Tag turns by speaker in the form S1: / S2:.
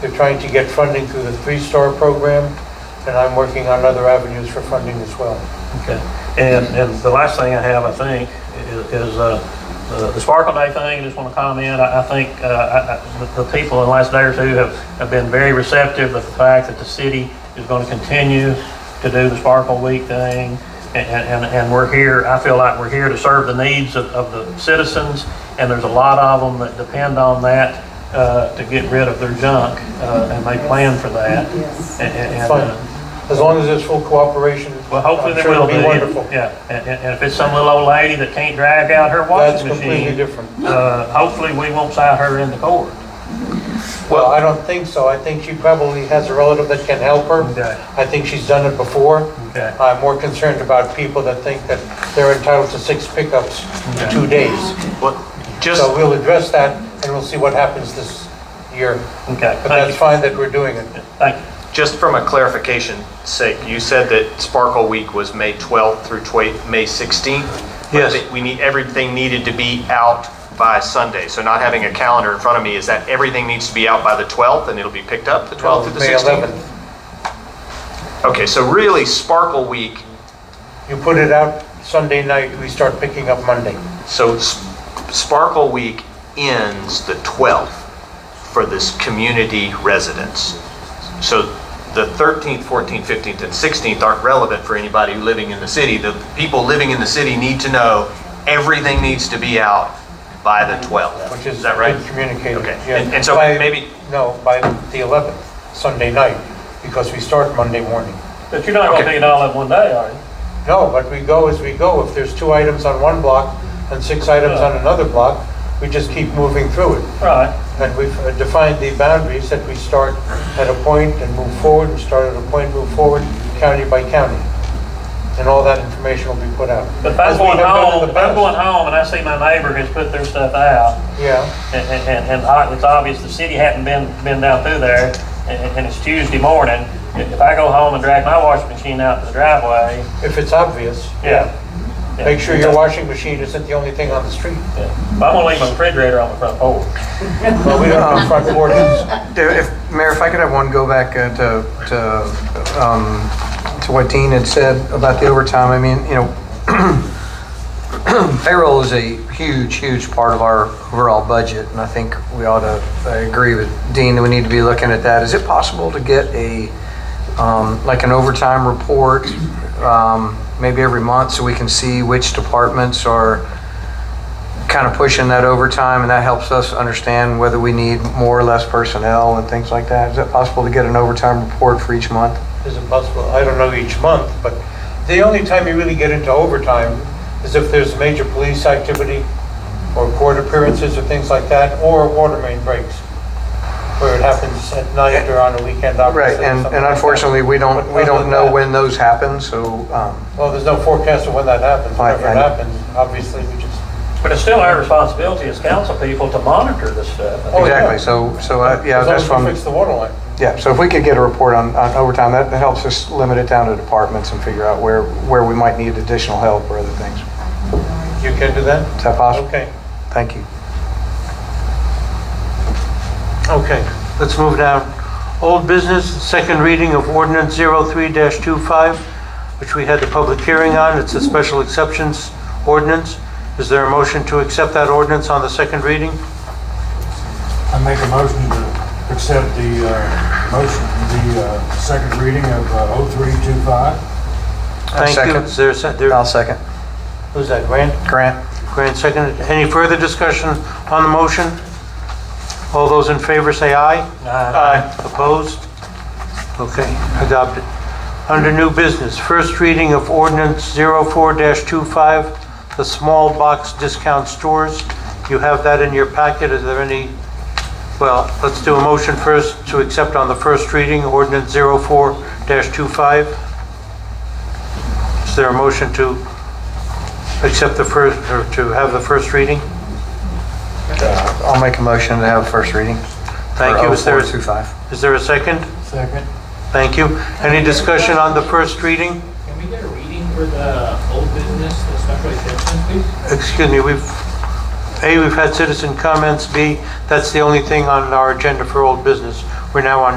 S1: They're trying to get funding through the three-star program, and I'm working on other avenues for funding as well.
S2: Okay. And, and the last thing I have, I think, is, is, uh, the the Sparkle Day thing, I just want to comment, I, I think, uh, I, I, the- the people in the last day or two have, have been very receptive to the fact that the city is going to continue to do the Sparkle Week thing. And, and, and we're here, I feel like we're here to serve the needs of, of the citizens, and there's a lot of them that depend on that, uh, to get rid of their junk, uh, and they plan for that.
S3: Yes.
S2: And, and- and,
S1: Fine.
S2: uh,
S1: As long as there's full cooperation.
S2: well, hopefully
S1: I'm
S2: there
S1: sure
S2: will be.
S1: It'll be wonderful.
S2: Yeah, and, and- and if it's some little old lady that can't drag out her
S1: That's
S2: washing
S1: completely
S2: machine,
S1: different.
S2: uh, hopefully we won't sign her into court.
S1: Well, I don't think so. I think she probably has a relative that can help her.
S2: Okay.
S1: I think she's done it before.
S2: Okay.
S1: I'm more concerned about people that think that they're entitled to six pickups in two days.
S4: Well, just,
S1: So we'll address that, and we'll see what happens this year.
S2: Okay,
S1: But that's
S2: thank
S1: fine that we're doing it.
S2: you. Thank you.
S4: just from a clarification sake, you said that Sparkle Week was May 12th through twe- May 16th? but
S1: Yes.
S4: that We need, everything needed to be out by Sunday, so not having a calendar in front of me, is that everything needs to be out by the 12th and it'll be picked up the 12th through the
S1: May
S4: 16th?
S1: 11th.
S4: Okay, so really Sparkle Week,
S1: You put it out Sunday night, we start picking up Monday.
S4: so S- Sparkle Week ends the 12th for this community residents. So the 13th, 14th, 15th, and 16th aren't relevant for anybody living in the city. The people living in the city need to know everything needs to be out by the 12th.
S1: which
S4: Is
S1: is
S4: that right?
S1: communicated.
S4: Okay.
S1: yeah.
S4: And- and so
S1: By-
S4: maybe-
S1: No, by the 11th, Sunday night, because we start Monday morning.
S2: But you're not gonna
S4: Okay.
S2: do it all in one day, are you?
S1: No, but we go as we go. If there's two items on one block and six items on another block, we just keep moving through it.
S2: Right,
S1: And we've uh, defined the boundaries that we start at a point and move forward, and start at a point, move forward, county by county. And all that information will be put out.
S2: but if
S1: As
S2: I'm
S1: we
S2: going
S1: have done in
S2: home,
S1: the
S2: if I'm
S1: past.
S2: going home and I see my neighbor has put their stuff out,
S1: Yeah,
S2: and, and- and, and I- it's obvious the city hadn't been, been down through there, and, and it's Tuesday morning, if I go home and drag my washing machine out to the driveway,
S1: if it's obvious.
S2: yeah. yeah.
S1: Make sure your washing machine isn't the only thing on the street.
S2: Yeah. But I'm gonna leave my refrigerator on the front porch.
S1: Well, we don't do front porches.
S5: There- If, Mayor, if I could have one go back uh, to, to, um, to what Dean had said about the overtime, I mean, you know, payroll is a huge, huge part of our overall budget, and I think we ought to, I agree with Dean, that we need to be looking at that. Is it possible to get a, um, like an overtime report, um, maybe every month, so we can see which departments are, kind of pushing that overtime, and that helps us understand whether we need more or less personnel and things like that. Is it possible to get an overtime report for each month?
S1: is it possible? I don't know each month, but the only time you really get into overtime is if there's major police activity or court appearances or things like that, or water main breaks, where it happens at night or on a weekend,
S5: Right,
S1: obviously. or
S5: and,
S1: something
S5: and
S1: like that.
S5: unfortunately, we
S1: But
S5: don't, we
S1: other
S5: don't
S1: than
S5: know
S1: that-
S5: when those happen, so, um,
S1: Well, there's no forecast of when that happens.
S5: I-
S1: Whenever
S5: I
S1: it
S5: know.
S1: happens, obviously, we just,
S2: But it's still our responsibility as council people to monitor this stuff.
S1: Oh, yeah.
S5: exactly, so, so, uh, yeah,
S1: as
S5: that's
S1: long as we
S5: one,
S1: fix the water line.
S5: yeah, so if we could get a report on, on overtime, that, that helps us limit it down to departments and figure out where, where we might need additional help or other things.
S1: You can do that?
S5: Is that possible?
S1: Okay,
S5: Thank you.
S1: okay. Let's move down. Old business, second reading of ordinance 03-25, which we had the public hearing on. It's a special exceptions ordinance. Is there a motion to accept that ordinance on the second reading?
S6: I make a motion to accept the uh, motion, the uh, second reading of uh, 0325.
S1: Thank you.
S5: second.
S1: Is there a se- there-
S5: I'll second.
S1: Who's that, Grant?
S5: Grant?
S1: Grant seconded. Any further discussion on the motion? All those in favor say aye. Aye. Opposed? Okay, adopted. Under new business, first reading of ordinance 04-25, the small box discount stores. You have that in your packet. Is there any, well, let's do a motion first to accept on the first reading, ordinance 04-25. Is there a motion to accept the first, or to have the first reading?
S5: Uh, I'll make a motion to have first reading.
S1: Thank you. Is there,
S5: oh Two
S1: is
S5: five.
S1: there a second?
S6: Second.
S1: Thank you. Any discussion on the first reading?
S7: Can we get a reading for the old business, the special exception, please?
S1: Excuse me, we've, A, we've had citizen comments, B, that's the only thing on our agenda for old business. We're now on